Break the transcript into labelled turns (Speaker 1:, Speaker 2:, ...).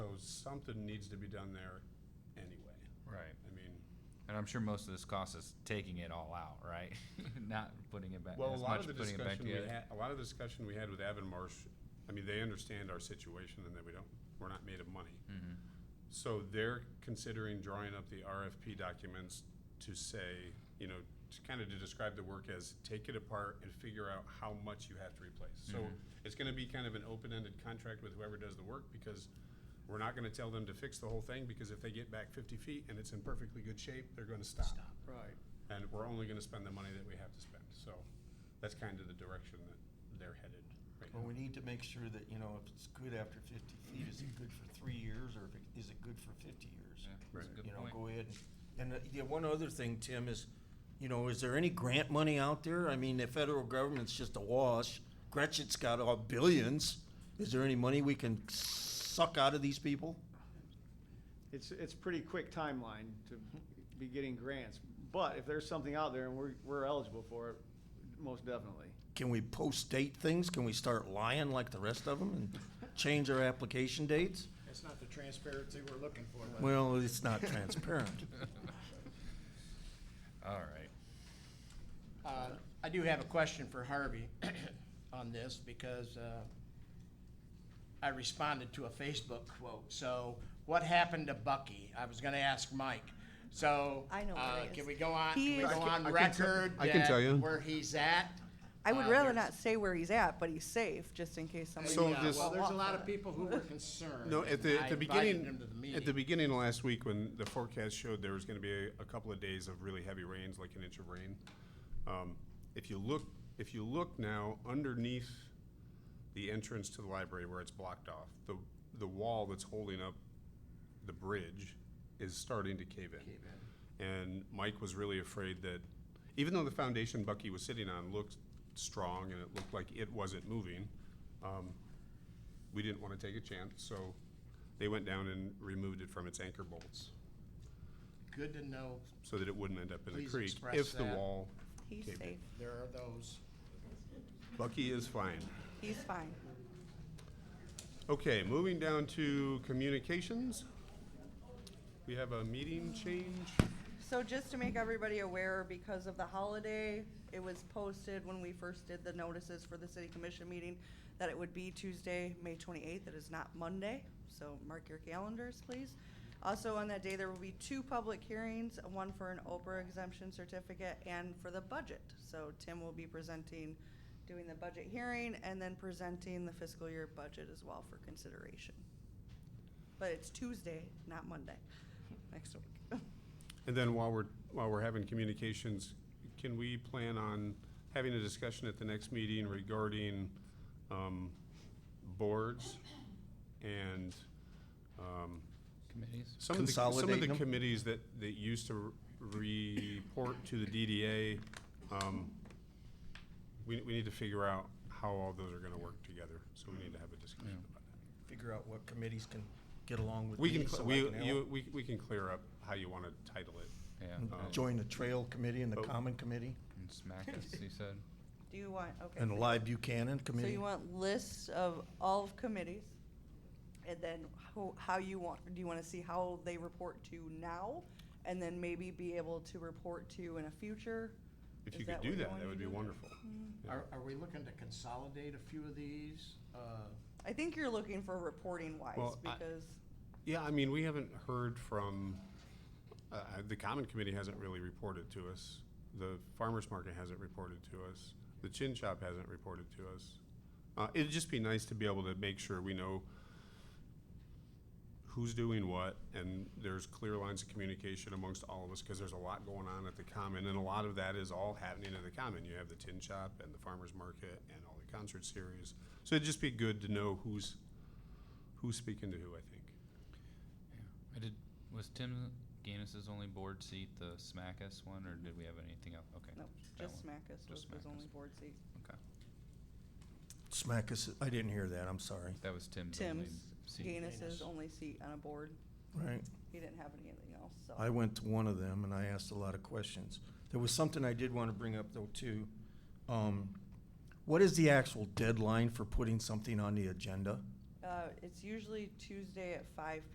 Speaker 1: something needs to be done there anyway.
Speaker 2: Right.
Speaker 1: I mean,
Speaker 2: And I'm sure most of this cost is taking it all out, right? Not putting it back,
Speaker 1: well, a
Speaker 2: as
Speaker 1: lot
Speaker 2: much
Speaker 1: of the
Speaker 2: putting it back
Speaker 1: discussion we
Speaker 2: together.
Speaker 1: had, a lot of the discussion we had with Avonmarsh, I mean, they understand our situation and that we don't, we're not made of money.
Speaker 2: Mhm.
Speaker 1: So they're considering drawing up the RFP documents to say, you know, to kind of to describe the work as take it apart and figure out how much you have to replace. So
Speaker 2: Mhm.
Speaker 1: it's gonna be kind of an open-ended contract with whoever does the work because we're not gonna tell them to fix the whole thing because if they get back fifty feet and it's in perfectly good shape, they're gonna stop.
Speaker 3: Right.
Speaker 1: And we're only gonna spend the money that we have to spend. So that's kind of the direction that they're headed right
Speaker 3: Well,
Speaker 1: now.
Speaker 3: we need to make sure that, you know, if it's good after fifty feet, is it good for three years or if it, is it good for fifty years?
Speaker 2: Yeah, that's a
Speaker 1: Right.
Speaker 2: good
Speaker 3: You know,
Speaker 2: point.
Speaker 3: go ahead and, and uh, yeah, one other thing, Tim, is, you know, is there any grant money out there? I mean, the federal government's just awash. Gretchen's got all billions. Is there any money we can suck out of these people?
Speaker 4: It's, it's pretty quick timeline to be getting grants, but if there's something out there and we're, we're eligible for it, most definitely.
Speaker 3: Can we post-date things? Can we start lying like the rest of them and change our application dates?
Speaker 5: That's not the transparency we're looking for. but-
Speaker 3: Well, it's not transparent.
Speaker 2: All right.
Speaker 5: Uh, I do have a question for Harvey on this because uh, I responded to a Facebook quote. So what happened to Bucky? I was gonna ask Mike. So.
Speaker 6: I know where
Speaker 5: uh,
Speaker 6: he is.
Speaker 5: Can we go on,
Speaker 6: He
Speaker 5: can we
Speaker 6: is- I
Speaker 5: go
Speaker 6: can-
Speaker 1: I
Speaker 5: on
Speaker 1: can tell-
Speaker 5: record?
Speaker 1: I can
Speaker 5: that
Speaker 1: tell you.
Speaker 5: Where he's at?
Speaker 6: I would
Speaker 5: Uh,
Speaker 6: rather
Speaker 5: there's-
Speaker 6: not say where he's at, but he's safe, just in case somebody.
Speaker 1: So
Speaker 5: Yeah,
Speaker 1: this-
Speaker 5: Well, there's a lot
Speaker 6: Well,
Speaker 5: of people who were concerned.
Speaker 1: No, at the,
Speaker 5: I
Speaker 1: at the
Speaker 5: invited
Speaker 1: beginning,
Speaker 5: them to the
Speaker 1: at the
Speaker 5: meeting.
Speaker 1: beginning of last week, when the forecast showed there was gonna be a, a couple of days of really heavy rains, like an inch of rain. Um, if you look, if you look now underneath the entrance to the library where it's blocked off, the, the wall that's holding up the bridge is starting to cave in. And Mike was really afraid that, even though the foundation Bucky was sitting on looked strong and it looked like it wasn't moving, um, we didn't want to take a chance, so they went down and removed it from its anchor bolts
Speaker 5: Good to know
Speaker 1: so that it wouldn't end up in the
Speaker 5: Please
Speaker 1: creek
Speaker 5: express
Speaker 1: if the
Speaker 5: that.
Speaker 1: wall
Speaker 6: He's
Speaker 1: caved in.
Speaker 6: safe.
Speaker 5: there are those.
Speaker 1: Bucky is fine.
Speaker 6: He's fine.
Speaker 1: Okay, moving down to communications. We have a meeting change.
Speaker 6: So just to make everybody aware, because of the holiday, it was posted when we first did the notices for the city commission meeting that it would be Tuesday, May twenty-eighth. It is not Monday, so mark your calendars, please. Also, on that day, there will be two public hearings, one for an Oprah exemption certificate and for the budget. So Tim will be presenting, doing the budget hearing and then presenting the fiscal year budget as well for consideration. But it's Tuesday, not Monday, next week.
Speaker 1: And then while we're, while we're having communications, can we plan on having a discussion at the next meeting regarding, um, boards and, um,
Speaker 2: Committees?
Speaker 1: Some of the, some of
Speaker 3: Consolidate
Speaker 1: the
Speaker 3: them?
Speaker 1: committees that, that used to report to the DDA, um, we, we need to figure out how all those are gonna work together, so we need to have a discussion about that.
Speaker 3: Figure out what committees can get along with
Speaker 1: We
Speaker 3: me
Speaker 1: can,
Speaker 3: so
Speaker 1: cl-
Speaker 3: I
Speaker 1: we,
Speaker 3: can
Speaker 1: you,
Speaker 3: help.
Speaker 1: we, we can clear up how you wanna title it.
Speaker 2: Yeah.
Speaker 3: And
Speaker 1: um,
Speaker 3: Join the trail committee and the
Speaker 1: Oh.
Speaker 3: common committee
Speaker 2: And smack us, he said.
Speaker 6: Do you want, okay.
Speaker 3: and the live Buchanan
Speaker 6: So
Speaker 3: committee.
Speaker 6: you want lists of all of committees? And then how, how you want, do you wanna see how they report to now? And then maybe be able to report to in a future?
Speaker 1: If
Speaker 6: Is
Speaker 1: you could
Speaker 6: that
Speaker 1: do
Speaker 6: what you
Speaker 1: that,
Speaker 6: wanna
Speaker 1: that would be
Speaker 6: do?
Speaker 1: wonderful. Yeah.
Speaker 5: Are, are we looking to consolidate a few of these? Uh,
Speaker 6: I think you're looking for reporting wise,
Speaker 1: Well, I-
Speaker 6: because,
Speaker 1: Yeah, I mean, we haven't heard from, uh, uh, the Common Committee hasn't really reported to us. The Farmers Market hasn't reported to us. The Chin Shop hasn't reported to us. Uh, it'd just be nice to be able to make sure we know who's doing what, and there's clear lines of communication amongst all of us, because there's a lot going on at the Common, and a lot of that is all happening at the Common. You have the Tin Shop and the Farmers Market and all the concert series. So it'd just be good to know who's, who's speaking to who, I think.
Speaker 2: I did, was Tim Gannis's only board seat the smack us one, or did we have anything else? Okay.
Speaker 6: no,
Speaker 2: that
Speaker 6: just
Speaker 2: one.
Speaker 6: Smackus was
Speaker 2: Just
Speaker 6: his
Speaker 2: Smackus.
Speaker 6: only board seat.
Speaker 2: Okay.
Speaker 3: Smack us, I didn't hear that, I'm sorry.
Speaker 2: That was Tim's only
Speaker 6: Tim's,
Speaker 2: seat.
Speaker 6: Gannis's
Speaker 5: Gaines.
Speaker 6: only seat on a board,
Speaker 3: Right,
Speaker 6: he didn't have anything else, so.
Speaker 3: I went to one of them and I asked a lot of questions. There was something I did want to bring up though too. Um, what is the actual deadline for putting something on the agenda?
Speaker 6: Uh, it's usually Tuesday at five